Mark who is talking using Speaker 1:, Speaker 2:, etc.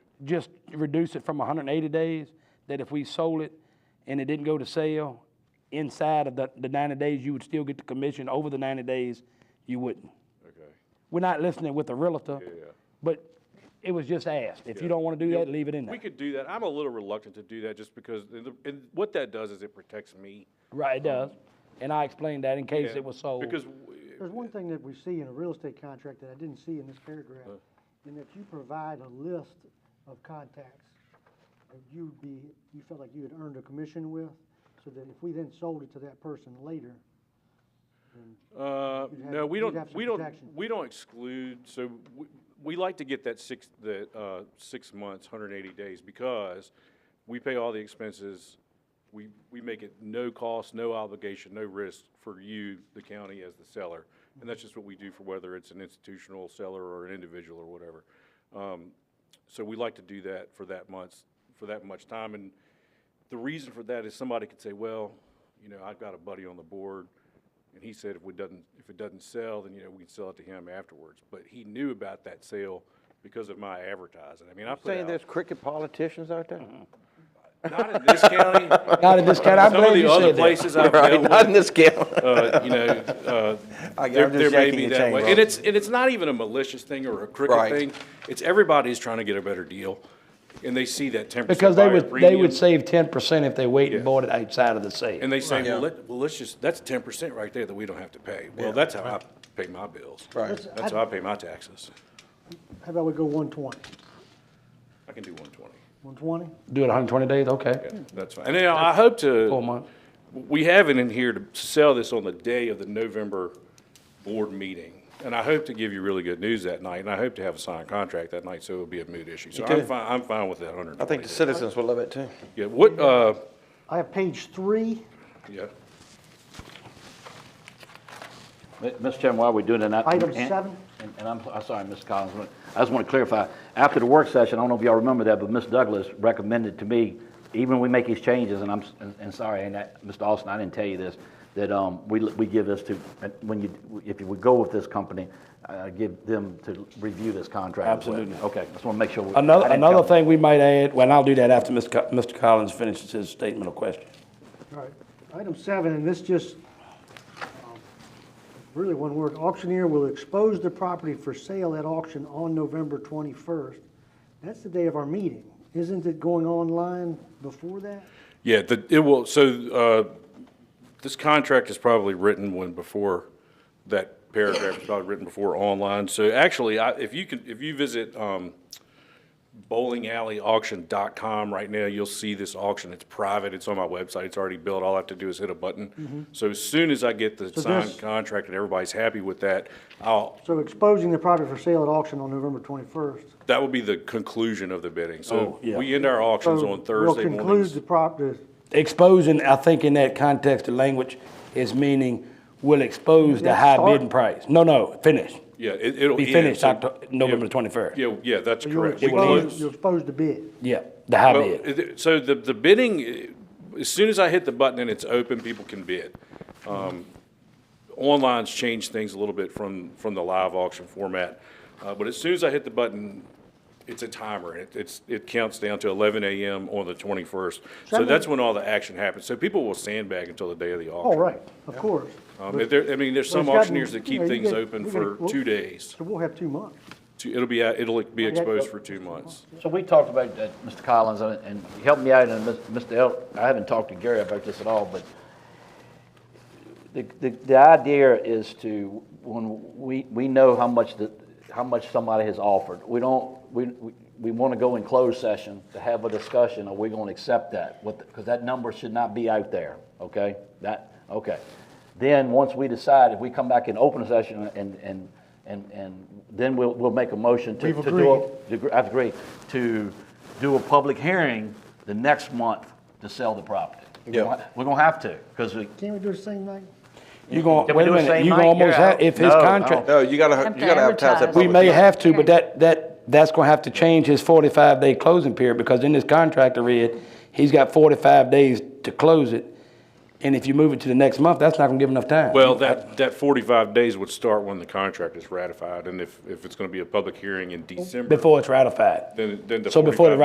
Speaker 1: just reduce it from 180 days, that if we sold it and it didn't go to sale, inside of the, the 90 days, you would still get the commission. Over the 90 days, you wouldn't.
Speaker 2: Okay.
Speaker 1: We're not listening with the realtor,
Speaker 2: Yeah.
Speaker 1: but it was just asked. If you don't want to do
Speaker 2: Yeah,
Speaker 1: that, leave it in there.
Speaker 2: We could do that. I'm a little reluctant to do that just because, the- the- and what that does is it protects me.
Speaker 1: Right, it does. And I explained that in case it was sold.
Speaker 2: Because, w-
Speaker 3: There's one thing that we see in a real estate contract that I didn't see in this paragraph, in that you provide a list of contacts that you'd be, you felt like you had earned a commission with, so that if we then sold it to that person later,
Speaker 2: uh,
Speaker 3: You'd have-
Speaker 2: no, we
Speaker 3: you'd have
Speaker 2: don't,
Speaker 3: some
Speaker 2: we don't,
Speaker 3: protection.
Speaker 2: we don't exclude, so we, we like to get that six, that, uh, six months, hundred and eighty days, because we pay all the expenses. We, we make it no cost, no obligation, no risk for you, the county, as the seller. And that's just what we do for whether it's an institutional seller or an individual or whatever. Um, So we like to do that for that months, for that much time. And the reason for that is somebody could say, well, you know, I've got a buddy on the board, and he said if we doesn't, if it doesn't sell, then, you know, we can sell it to him afterwards. But he knew about that sale because of my advertising. I mean, I put
Speaker 4: Saying
Speaker 2: out,
Speaker 4: there's cricket politicians out there?
Speaker 2: not in this county.
Speaker 1: Not in this county. I'm
Speaker 2: Some of
Speaker 1: glad
Speaker 2: the
Speaker 1: you
Speaker 2: other
Speaker 1: said that.
Speaker 2: places I've
Speaker 4: Right,
Speaker 2: dealt
Speaker 4: not
Speaker 2: with,
Speaker 4: in this game.
Speaker 2: uh, you know, uh,
Speaker 4: I- I'm
Speaker 2: there,
Speaker 4: just
Speaker 2: there may
Speaker 4: yanking
Speaker 2: be
Speaker 4: your
Speaker 2: that
Speaker 4: chain,
Speaker 2: way.
Speaker 4: bro.
Speaker 2: And it's, and it's not even a malicious thing or a crooked
Speaker 4: Right.
Speaker 2: thing. It's everybody's trying to get a better deal, and they see that ten
Speaker 1: Because
Speaker 2: percent
Speaker 1: they
Speaker 2: buyer
Speaker 1: would, they
Speaker 2: premium,
Speaker 1: would save 10% if they wait and
Speaker 2: Yeah.
Speaker 1: bought it outside of the sale.
Speaker 2: And they say, well,
Speaker 4: Yeah.
Speaker 2: let, well, let's just, that's ten percent right there that we don't have to pay. Well, that's how I pay my bills.
Speaker 4: Right.
Speaker 3: Listen,
Speaker 2: That's
Speaker 3: I-
Speaker 2: how I pay my taxes.
Speaker 3: how about we go one twenty?
Speaker 2: I can do one twenty.
Speaker 3: One twenty?
Speaker 1: Do it 120 days, okay.
Speaker 2: Yeah, that's fine. And you know, I hope to.
Speaker 1: Four months.
Speaker 2: We have it in here to sell this on the day of the November board meeting. And I hope to give you really good news that night, and I hope to have a signed contract that night, so it'll be a moot issue. So I'm
Speaker 4: too.
Speaker 2: fine, I'm fine with that hundred and
Speaker 4: I
Speaker 2: twenty.
Speaker 4: think the citizens will love it too.
Speaker 2: Yeah, what, uh,
Speaker 3: I have page three,
Speaker 2: yeah,
Speaker 5: Mi- Mr. Chairman, while we're doing that. I-
Speaker 3: Item
Speaker 5: and-
Speaker 3: seven.
Speaker 5: and- And I'm, I'm sorry, Ms. Collins, but I just want to clarify, after the work session, I don't know if y'all remember that, but Ms. Douglas recommended to me, even when we make these changes, and I'm, s- and- and sorry, and that, Mr. Austin, I didn't tell you this, that um, we, l- we give this to, uh, when you, if you would go with this company, uh, give them to review this contract. as well.
Speaker 1: Absolutely.
Speaker 5: Okay, just want to make sure. we- I
Speaker 1: Another,
Speaker 5: didn't
Speaker 1: another
Speaker 5: tell-
Speaker 1: thing we might add, well, and I'll do that after Mr. Co- Mr. Collins finishes his statement of question.
Speaker 3: all right, item seven, and this just, um, really one word, auctioneer will expose the property for sale at auction on November twenty-first. That's the day of our meeting. Isn't it going online before that?
Speaker 2: yeah, the, it will, so, uh, this contract is probably written when before, that paragraph is probably written before online. So actually, I, if you can, if you visit, um, bowlingalleyauction.com right now, you'll see this auction. It's private, it's on my website, it's already built. All I have to do is hit a button. So as soon as I get the signed
Speaker 3: Mm-hmm. this-
Speaker 2: contract and everybody's happy with that, I'll,
Speaker 3: So exposing the property for sale at auction on November 21st.
Speaker 2: That will be the conclusion of the bidding. So
Speaker 1: Oh, yeah.
Speaker 2: we end our auctions on Thursday
Speaker 3: We'll conclude
Speaker 2: mornings.
Speaker 3: the property,
Speaker 1: Exposing, I think in that context of language, is meaning will expose the high
Speaker 3: Start.
Speaker 1: bidding price. No, no, finish.
Speaker 2: Yeah, it, it'll.
Speaker 1: Be
Speaker 2: end,
Speaker 1: finished
Speaker 2: so-
Speaker 1: Octo- November
Speaker 2: yeah,
Speaker 1: 21st.
Speaker 2: Yeah, yeah, that's
Speaker 3: you'll
Speaker 2: correct. We
Speaker 3: expose,
Speaker 2: close-
Speaker 3: you'll expose the bid.
Speaker 1: Yeah, the high
Speaker 2: well,
Speaker 1: bid.
Speaker 2: it- So the, the bidding, eh, as soon as I hit the button and it's open, people can bid. Um, Online's changed things a little bit from, from the live auction format. Uh, but as soon as I hit the button, it's a timer. It, it's, it counts down to eleven AM on the twenty-first. So
Speaker 3: Somebody-
Speaker 2: that's when all the action happens. So people will sandbag until the day of the auction.
Speaker 3: All right, of course.
Speaker 2: Um, if there, I mean, there's some
Speaker 3: But it's gotten-
Speaker 2: auctioneers that
Speaker 3: you
Speaker 2: keep
Speaker 3: know, you
Speaker 2: things
Speaker 3: get-
Speaker 2: open
Speaker 3: you're gonna-
Speaker 2: for two days.
Speaker 3: So we'll have two months.
Speaker 2: Two- It'll be, out- it'll be exposed for two months.
Speaker 5: So we talked about that, Mr. Collins, and- and help me out, and Mr. El, I haven't talked to Gary about this at all, but the, the, the idea is to, when we, we know how much the, how much somebody has offered. We don't, we, we- we want to go in closed session to have a discussion, are we going to accept that? What, because that number should not be out there, okay? That, okay. Then, once we decide, if we come back in open session and, and, and, and then we'll, we'll make a motion to.
Speaker 3: We've
Speaker 5: to do a-
Speaker 3: agreed.
Speaker 5: to gr- I've agreed, to do a public hearing the next month to sell the property.
Speaker 4: Yeah.
Speaker 5: We're gonna have to, because we,
Speaker 3: Can't we do it the same night?
Speaker 1: You're going,
Speaker 5: Can
Speaker 1: wait a
Speaker 5: we do it
Speaker 1: minute,
Speaker 5: same
Speaker 1: you're
Speaker 5: night?
Speaker 1: going almost
Speaker 5: Yeah.
Speaker 1: have, if his
Speaker 5: No, I
Speaker 1: contract,
Speaker 4: No, you gotta,
Speaker 6: Have to
Speaker 4: you gotta advertise that.
Speaker 6: advertise.
Speaker 1: we
Speaker 6: no,
Speaker 1: may
Speaker 4: publicly.
Speaker 1: have to, but that, that, that's gonna have to change his forty-five day closing period, because in this contract I read, he's got forty-five days to close it. And if you move it to the next month, that's not gonna give enough time.
Speaker 2: Well, that, that forty-five days would start when the contract is ratified, and if, if it's gonna be a public hearing in December,
Speaker 1: Before it's ratified.
Speaker 2: then, then the
Speaker 1: So before the
Speaker 2: 45